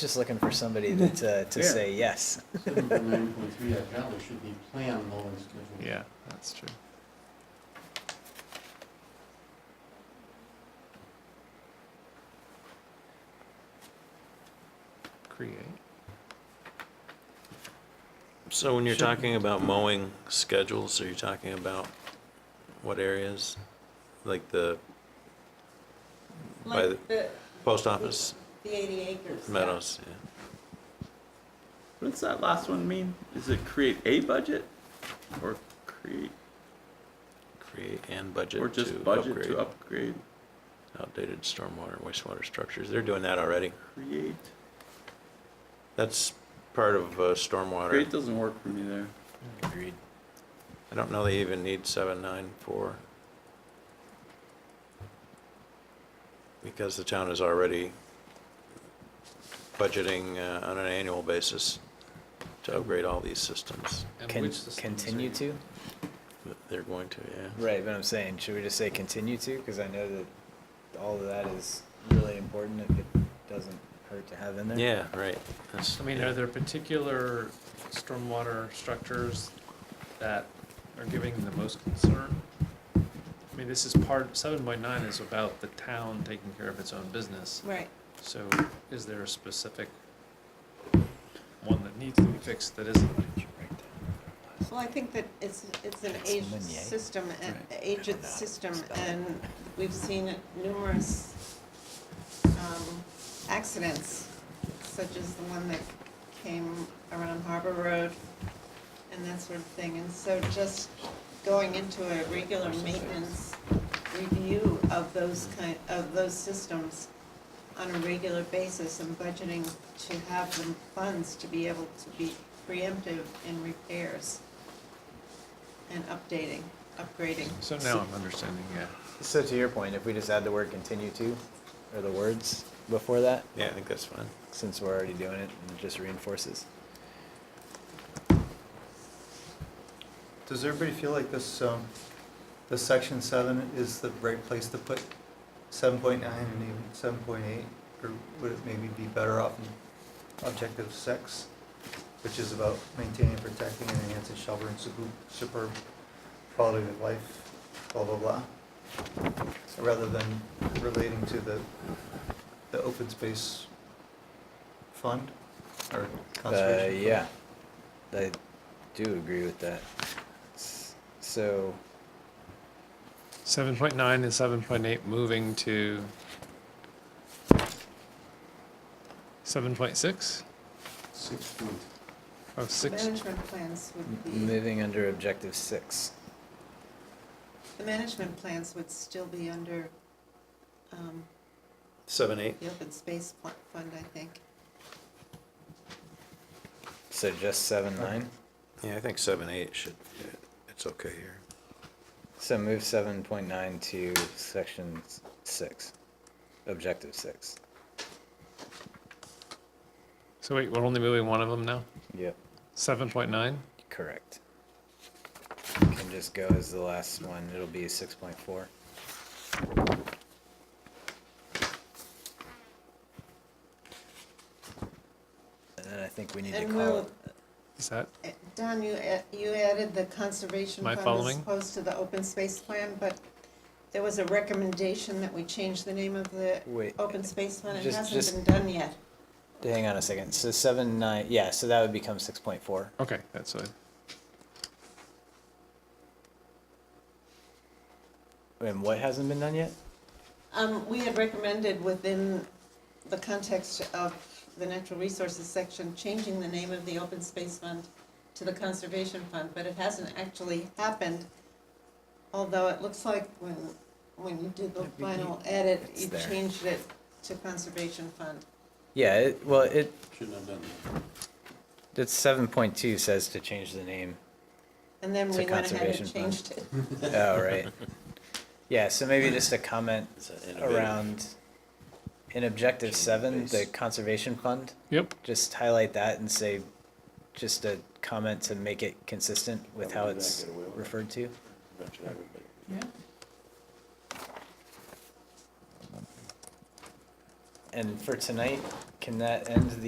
Just looking for somebody to, to, to Yeah. say yes. Seven point nine point three at Valley should be planned mowing schedule. Yeah, that's true. Create. So when you're talking about mowing schedules, are you talking about what areas? Like the By the- Like the, post office the eighty acres. meadows? yeah. What does that last one mean? Is it create a budget, or create, Create and budget or just to budget to upgrade upgrade? outdated stormwater and wastewater structures. They're doing that already. Create. That's part of uh, stormwater. Create doesn't work for me there. Agreed. I don't know they even need seven, nine, four. Because the town is already budgeting uh, on an annual basis to upgrade all these systems. And Can, which systems are continue you- to? that They're going to, yeah. Right, but I'm saying, should we just say continue to? Because I know that all of that is really important if it doesn't hurt to have in there. Yeah, right. That's- I mean, yeah. are there particular stormwater structures that are giving the most concern? I mean, this is part, seven point nine is about the town taking care of its own business. Right. So is there a specific one that needs to be fixed that isn't? Well, I think that it's, it's an That's aged Meunier. system, a- Right. aged That's system, spelled. and we've seen numerous um, accidents, such as the one that came around Harbor Road and that sort of thing. And so just going into a regular maintenance review of those kind, of those systems on a regular basis and budgeting to have the funds to be able to be preemptive in repairs and updating, upgrading. So now I'm understanding, yeah. So to your point, if we just add the word continue to, or the words before that, Yeah, I think that's fine. since we're already doing it, and it just reinforces. Uh, Does everybody feel like this, um, this section seven is the right place to put seven point nine and even seven point eight? Or would it maybe be better off in objective six, which is about maintaining, protecting, and enhancing shelter and superb, superb quality of life, blah, blah, blah? Rather than relating to the, the open space fund or Uh, conservation? fund? yeah, I do agree with that. S- So, Seven point nine and seven point eight moving to seven point six? Six point, Oh, six, Management plans would m- be, moving under objective six. the management plans would still be under um, Seven, eight? the open space pl- fund, I think. So just seven, nine? Yeah, I think seven, eight should, it's okay here. So move seven point nine to section s- six, objective six. so wait, we're only moving one of them now? Yep. Seven point nine? Correct. Can just go as the last one, it'll be six point four. And then I think we need to And call, we'll- Is that, Uh, Don, you, a- you added the conservation Am I fund as following? opposed to the open space plan, but there was a recommendation that we change the name of the wait, open space fund. It Just- hasn't just- been done yet. hang on a second, so seven, nine, yeah, so that would become six point four. okay, that's it. And what hasn't been done yet? Um, we had recommended within the context of the natural resources section, changing the name of the open space fund to the conservation fund, but it hasn't actually happened. Although it looks like when, when you did the Yeah, we- final edit, it's you there. changed it to conservation fund. Yeah, it, well, it, shouldn't have done that. it's seven point two says to change the name. And then It's we a went ahead conservation and fund. changed it. Oh, right. Yeah, so maybe just a comment Is that innovative? around, in objective Change the seven, the base. conservation fund, Yep, just highlight that and say, just a comment to make it consistent with how Probably not it's get away with it. referred to. Eventually, everybody- And for tonight, can that end the